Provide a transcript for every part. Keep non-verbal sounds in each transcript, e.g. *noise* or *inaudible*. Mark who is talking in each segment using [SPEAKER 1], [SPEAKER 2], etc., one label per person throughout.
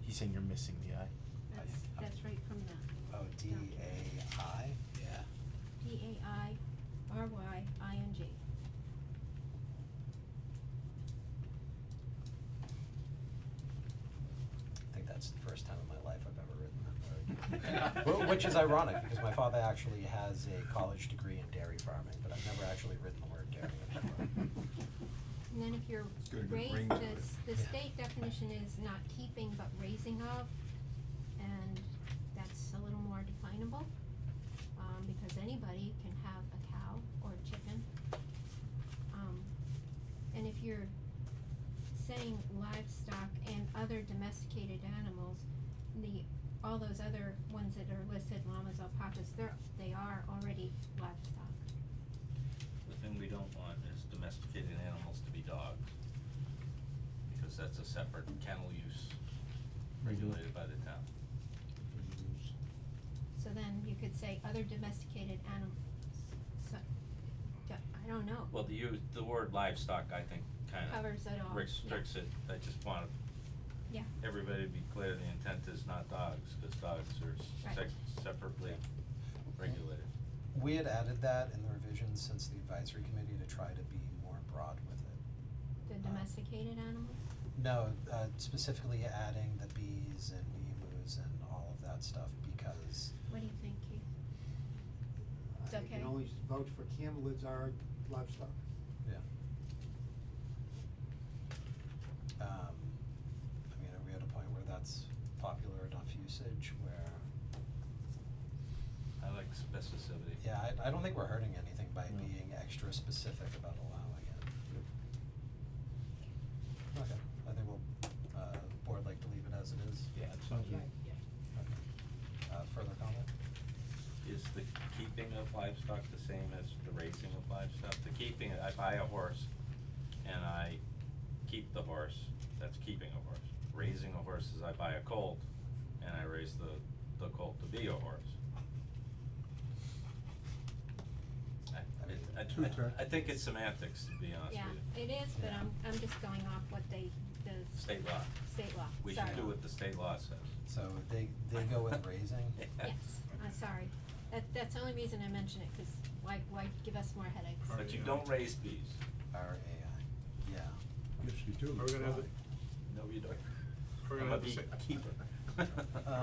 [SPEAKER 1] He's saying you're missing the I.
[SPEAKER 2] That's,
[SPEAKER 1] I-
[SPEAKER 2] that's right from the.
[SPEAKER 3] Oh, D A I, yeah.
[SPEAKER 2] D A I R Y I N G.
[SPEAKER 3] I think that's the first time in my life I've ever written that
[SPEAKER 1] Well,
[SPEAKER 3] word. Wh- Which is ironic, because my father actually has a college degree in dairy farming, but I've never actually written the word dairy. in my life.
[SPEAKER 2] And then if you're
[SPEAKER 4] It's got a good
[SPEAKER 2] raising,
[SPEAKER 4] ring to it.
[SPEAKER 2] the, the
[SPEAKER 3] Yeah.
[SPEAKER 2] state definition is not keeping but raising of, and that's a little more definable. Um, because anybody can have a cow or a chicken. Um, and if you're saying livestock and other domesticated animals, the, all those other ones that are listed, llamas, alpacas, they're, they are already livestock.
[SPEAKER 5] The thing we don't want is domesticated animals to be dogs, because that's a separate kennel use regulated by the town.
[SPEAKER 2] So then you could say other domesticated animals, so, d- I don't know,
[SPEAKER 5] Well, the use, the word livestock, I think, kinda
[SPEAKER 2] covers it all, yeah,
[SPEAKER 5] restricts it, I just want
[SPEAKER 2] yeah,
[SPEAKER 5] everybody to be clear, the intent is not dogs, cause dogs are
[SPEAKER 2] Right.
[SPEAKER 5] s- sec- separately regulated.
[SPEAKER 3] We had added that in the revisions since the advisory committee to try to be more broad with it.
[SPEAKER 2] the domesticated animals,
[SPEAKER 3] No, uh, specifically adding the bees and emus and all of that stuff, because
[SPEAKER 2] what do you think, Keith? It's
[SPEAKER 6] I
[SPEAKER 2] okay.
[SPEAKER 6] Uh, can only vouch for camelids are livestock.
[SPEAKER 3] Um, I mean, are we at a point where that's popular enough usage where,
[SPEAKER 5] I like specificity.
[SPEAKER 3] yeah, I, I don't think we're hurting anything by
[SPEAKER 5] No.
[SPEAKER 3] being extra specific about allowing it. Okay, I think we'll, uh, board like to leave it as it is.
[SPEAKER 1] Yeah, as long as we-
[SPEAKER 3] Okay. Uh, further comment?
[SPEAKER 5] Is the keeping of livestock the same as the raising of livestock? The keeping, I buy a horse and I keep the horse, that's keeping a horse. Raising a horse is I buy a colt and I raise the, the colt to be a horse. I, it- I-
[SPEAKER 4] True, correct.
[SPEAKER 5] I, I think it's semantics, to be honest with
[SPEAKER 2] Yeah,
[SPEAKER 5] you.
[SPEAKER 2] it is, but
[SPEAKER 3] Yeah.
[SPEAKER 2] I'm, I'm just going off what they, the s-
[SPEAKER 5] State law,
[SPEAKER 2] state law,
[SPEAKER 5] we
[SPEAKER 2] sorry.
[SPEAKER 5] should do what the state law says.
[SPEAKER 3] So they, they go with raising?
[SPEAKER 2] Yes, I'm sorry, that, that's the only reason I mention it, cause why, why give us more headaches?
[SPEAKER 5] But you don't raise bees,
[SPEAKER 3] R A I, yeah.
[SPEAKER 4] Yes, you do.
[SPEAKER 7] Are we gonna have the,
[SPEAKER 5] no, you don't.
[SPEAKER 7] We're gonna
[SPEAKER 5] I'm
[SPEAKER 7] have
[SPEAKER 5] a
[SPEAKER 7] the sa-
[SPEAKER 5] beekeeper.
[SPEAKER 7] are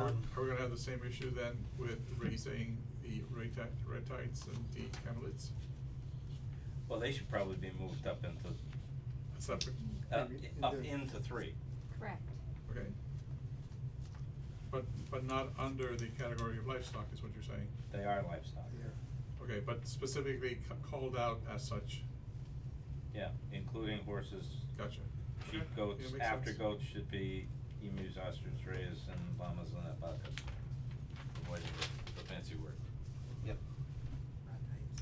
[SPEAKER 7] we-
[SPEAKER 3] Um,
[SPEAKER 7] are we gonna have the same issue then with raising the reti- retites and the camelids?
[SPEAKER 5] Well, they should probably be moved up into,
[SPEAKER 7] A Separate,
[SPEAKER 5] uh,
[SPEAKER 6] Maybe
[SPEAKER 5] up
[SPEAKER 6] into-
[SPEAKER 5] into three.
[SPEAKER 2] Correct,
[SPEAKER 7] okay? But, but not under the category of livestock is what you're saying?
[SPEAKER 5] They are livestock.
[SPEAKER 7] Okay, but specifically ca- called out as such,
[SPEAKER 5] Yeah, including horses,
[SPEAKER 7] gotcha. Okay,
[SPEAKER 5] sheep, goats,
[SPEAKER 7] yeah, makes
[SPEAKER 5] after
[SPEAKER 7] sense.
[SPEAKER 5] goats should be emus, ostriches, rays, and llamas and alpacas. Avoiding the- the fancy word.
[SPEAKER 3] Yep.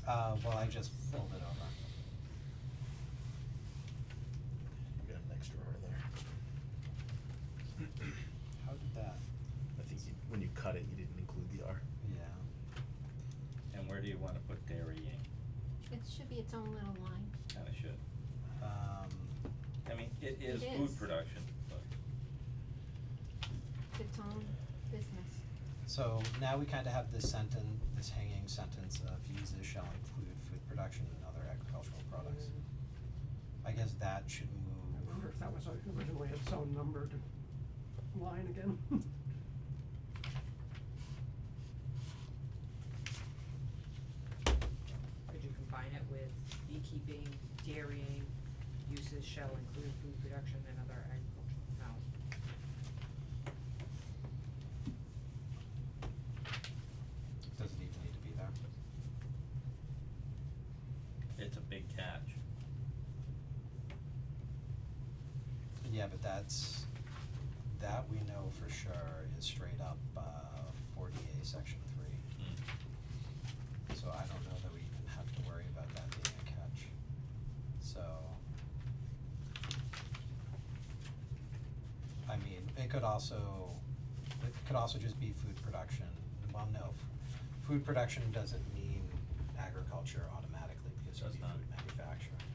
[SPEAKER 3] Uh, well, I just pulled it over.
[SPEAKER 1] You got an extra R there.
[SPEAKER 3] How did that?
[SPEAKER 1] I think you, when you cut it, you didn't include the R.
[SPEAKER 3] Yeah.
[SPEAKER 5] And where do you wanna put dairy in?
[SPEAKER 2] it should be its own little line,
[SPEAKER 5] Kinda should.
[SPEAKER 3] Um,
[SPEAKER 5] I mean, it
[SPEAKER 2] It
[SPEAKER 5] is food
[SPEAKER 2] is.
[SPEAKER 5] production, but
[SPEAKER 2] It's its own business.
[SPEAKER 3] so now we kind of have this sentence, this hanging sentence of uses shall include food production and other agricultural products. I guess that should
[SPEAKER 8] I wonder
[SPEAKER 3] move,
[SPEAKER 8] if that was originally its own numbered line again. *laughs*
[SPEAKER 9] Could you combine it with beekeeping, dairying, uses shall include food production and other agricultural, no.
[SPEAKER 3] does it even need to be there?
[SPEAKER 5] it's a big catch.
[SPEAKER 3] Yeah, but that's, that we know for sure is straight up, uh, forty A, section three.
[SPEAKER 5] Mm.
[SPEAKER 3] So I don't know that we even have to worry about that being a catch. So. I mean, it could also, it could also just be food production, well, no, f- food production doesn't mean agriculture automatically because it'd
[SPEAKER 5] Does
[SPEAKER 3] be
[SPEAKER 5] not.
[SPEAKER 3] food manufacturing.